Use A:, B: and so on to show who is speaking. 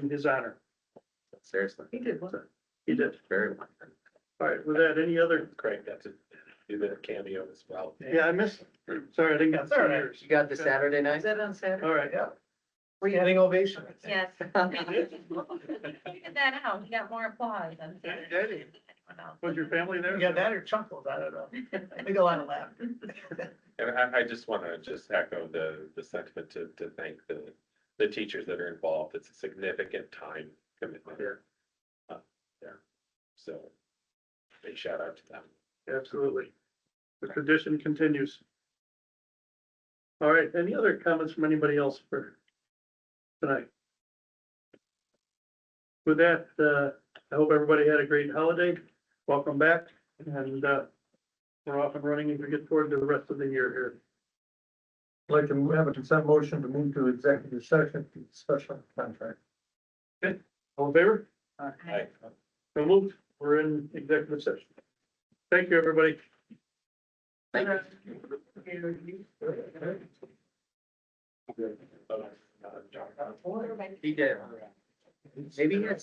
A: in his honor.
B: Seriously.
C: He did what?
A: He did.
B: Very much.
A: All right, with that, any other,
D: Craig got to do the cameo as well.
A: yeah, I missed, sorry, I didn't get
D: That's all right.
A: yours.
B: You got the
A: Okay.
B: Saturday
C: Is
B: night?
C: that on Saturday?
A: All right,
D: Standing ovation.
E: Yes. Figured that out. He got more applause than.
A: Hey, Daddy,
E: anyone else.
A: was your family there?
F: Yeah, that or chuckles, I don't know. I think a lot of laughter.
D: And I, I just want to just echo the, the sentiment to, to thank the, the teachers that are involved. It's a significant time commitment.
A: Sure.
D: Uh, Yeah. So big shout out to them.
A: Absolutely. The tradition continues. All right, any other comments from anybody else for tonight? With that, uh, I hope everybody had a great holiday. Welcome back and, uh, we're off and running as we get toward the rest of the year here.
G: Like to have a consent motion to move to executive session, for special contract.
A: All in favor?
D: Hi.
A: So moved. We're in executive session. Thank you, everybody.
B: Thank you.
D: Uh, John. Uh,
B: He did. Maybe he had